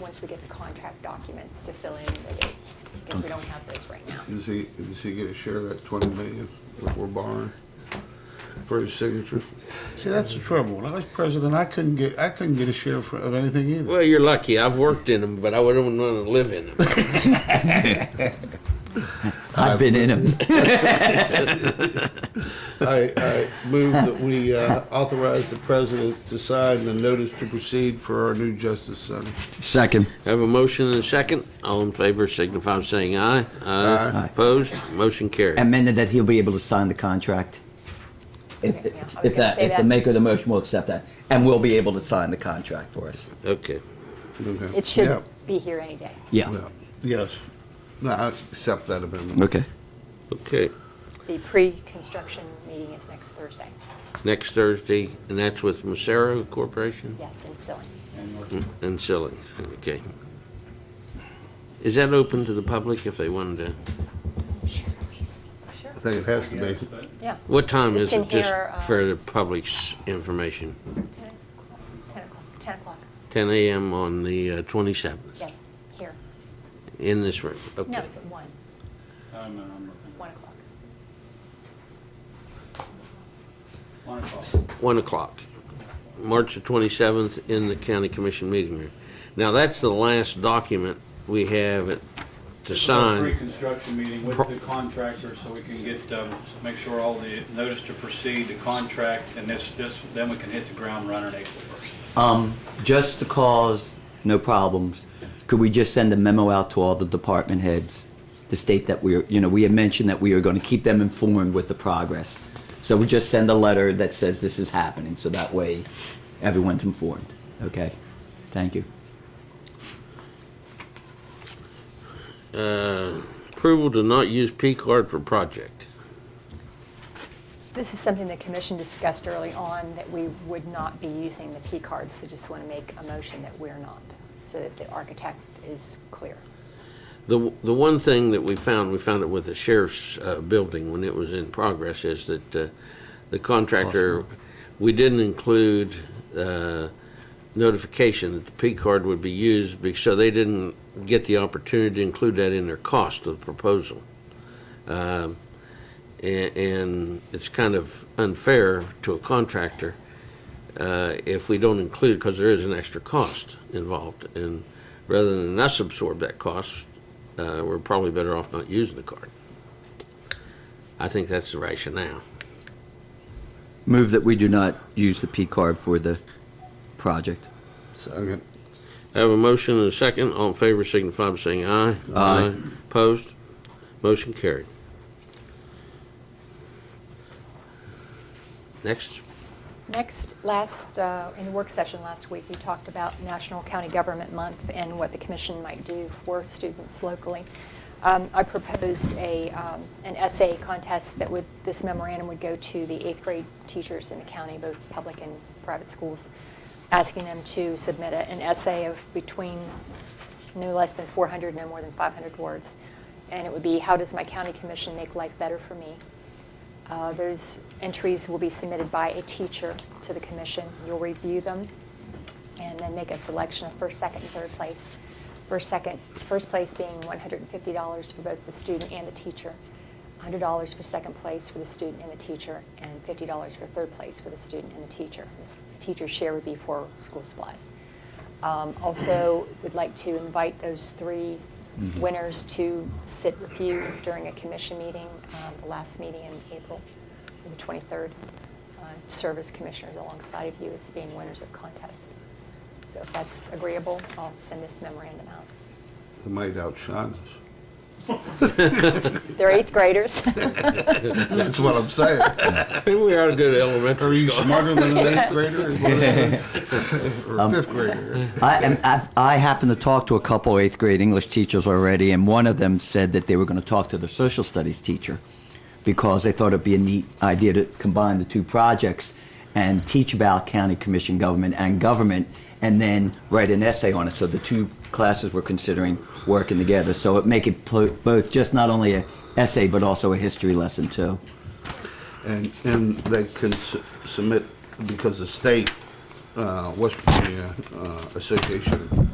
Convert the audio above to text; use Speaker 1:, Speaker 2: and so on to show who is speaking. Speaker 1: once we get the contract documents to fill in the dates, because we don't have those right now.
Speaker 2: Does he, does he get a share of that twenty million that we're borrowing for his signature?
Speaker 3: See, that's the trouble. When I was president, I couldn't get, I couldn't get a share of, of anything either.
Speaker 4: Well, you're lucky. I've worked in them, but I wouldn't want to live in them.
Speaker 5: I've been in them.
Speaker 2: I, I move that we uh, authorize the president to sign the notice to proceed for our new justice center.
Speaker 5: Second.
Speaker 4: Have a motion and a second. All in favor signify by saying aye.
Speaker 2: Aye.
Speaker 4: Opposed? Motion carried.
Speaker 5: Amended that he'll be able to sign the contract. If,
Speaker 1: Okay, yeah, I was
Speaker 5: if
Speaker 1: gonna
Speaker 5: that,
Speaker 1: say
Speaker 5: if the
Speaker 1: that.
Speaker 5: maker of the motion will accept that, and we'll be able to sign the contract for us.
Speaker 4: Okay.
Speaker 2: Okay.
Speaker 1: It
Speaker 2: Yeah.
Speaker 1: should be here any day.
Speaker 5: Yeah.
Speaker 2: Yeah. Yes. No, I accept that amendment.
Speaker 5: Okay.
Speaker 4: Okay.
Speaker 1: The pre-construction meeting is next Thursday,
Speaker 4: Next Thursday, and that's with Macero Corporation
Speaker 1: yes, in Sylvan.
Speaker 4: and Silling. Okay. Is that open to the public if they wanted to?
Speaker 1: Sure, sure,
Speaker 2: I think it has to be.
Speaker 6: uh,
Speaker 1: yeah,
Speaker 4: What time is
Speaker 1: It's in
Speaker 4: it, just
Speaker 1: here, uh,
Speaker 4: for the public's information?
Speaker 1: 10 o'clock, 10 o'clock, 10 o'clock,
Speaker 4: 10 a.m. on the uh, 27th,
Speaker 1: yes, here.
Speaker 4: in this room?
Speaker 1: No,
Speaker 4: Okay.
Speaker 1: it's at 1,
Speaker 6: I'm, I'm looking.
Speaker 1: 1 o'clock.
Speaker 6: One o'clock.
Speaker 4: 1 o'clock, March the 27th, in the county commission meeting room. Now, that's the last document we have it to sign.
Speaker 6: Pre-construction meeting with
Speaker 4: Pro-
Speaker 6: the contractor so we can get, um, make sure all the notice to proceed, the contract, and this, this, then we can hit the ground running April first.
Speaker 5: Um, just to cause no problems, could we just send a memo out to all the department heads to state that we're, you know, we had mentioned that we are going to keep them informed with the progress. So we just send a letter that says this is happening, so that way everyone's informed. Okay? Thank you.
Speaker 4: Uh, Approval to not use P-card for project.
Speaker 1: This is something the commission discussed early on, that we would not be using the P cards, so just want to make a motion that we're not, so that the architect is clear.
Speaker 4: The, the one thing that we found, we found it with the sheriff's uh, building when it was in progress, is that uh, the contractor, we didn't include uh, notification that the P card would be used, be- so they didn't get the opportunity to include that in their cost of the proposal. Um, a- And it's kind of unfair to a contractor uh, if we don't include, because there is an extra cost involved. And rather than us absorb that cost, uh, we're probably better off not using the card. I think that's the rationale.
Speaker 5: Move that we do not use the P card for the project.
Speaker 2: Second.
Speaker 4: I have a motion and a second. All in favor signify by saying aye.
Speaker 5: Aye.
Speaker 4: Opposed? Motion carried. Next.
Speaker 1: Next, last, uh, in the work session last week, we talked about National County Government Month and what the commission might do for students locally. Um, I proposed a, um, an essay contest that would, this memorandum would go to the eighth grade teachers in the county, both public and private schools, asking them to submit a- an essay of between no less than 400, no more than 500 words. And it would be, how does my county commission make life better for me? Uh, Those entries will be submitted by a teacher to the commission. You'll review them and then make a selection of first, second, and third place. First, second, first place being $150 for both the student and the teacher, $100 for second place for the student and the teacher, and $50 for third place for the student and the teacher. This Teacher's share would be for school supplies. Um, Also, would like to invite those three winners to sit with you during a commission meeting, um, the last meeting in April, the 23rd, uh, serve as commissioners alongside of you as being winners of contest. So if that's agreeable, I'll send this memorandum out.
Speaker 2: It might outshine us.
Speaker 1: They're eighth graders.
Speaker 2: That's what I'm saying.
Speaker 4: Maybe we ought to go to
Speaker 2: Are
Speaker 4: elementary
Speaker 2: you
Speaker 4: school.
Speaker 2: smarter than an eighth grader? is what I'm saying? Or a fifth grader?
Speaker 5: I, am, I've, I happen to talk to a couple eighth grade English teachers already, and one of them said that they were going to talk to their social studies teacher because they thought it'd be a neat idea to combine the two projects and teach about county commission government and government, and then write an essay on it. So the two classes were considering working together. So it make it pl- both just not only a essay but also a history lesson too.
Speaker 2: And, and they can su- submit, because the state, uh, West Virginia uh, Association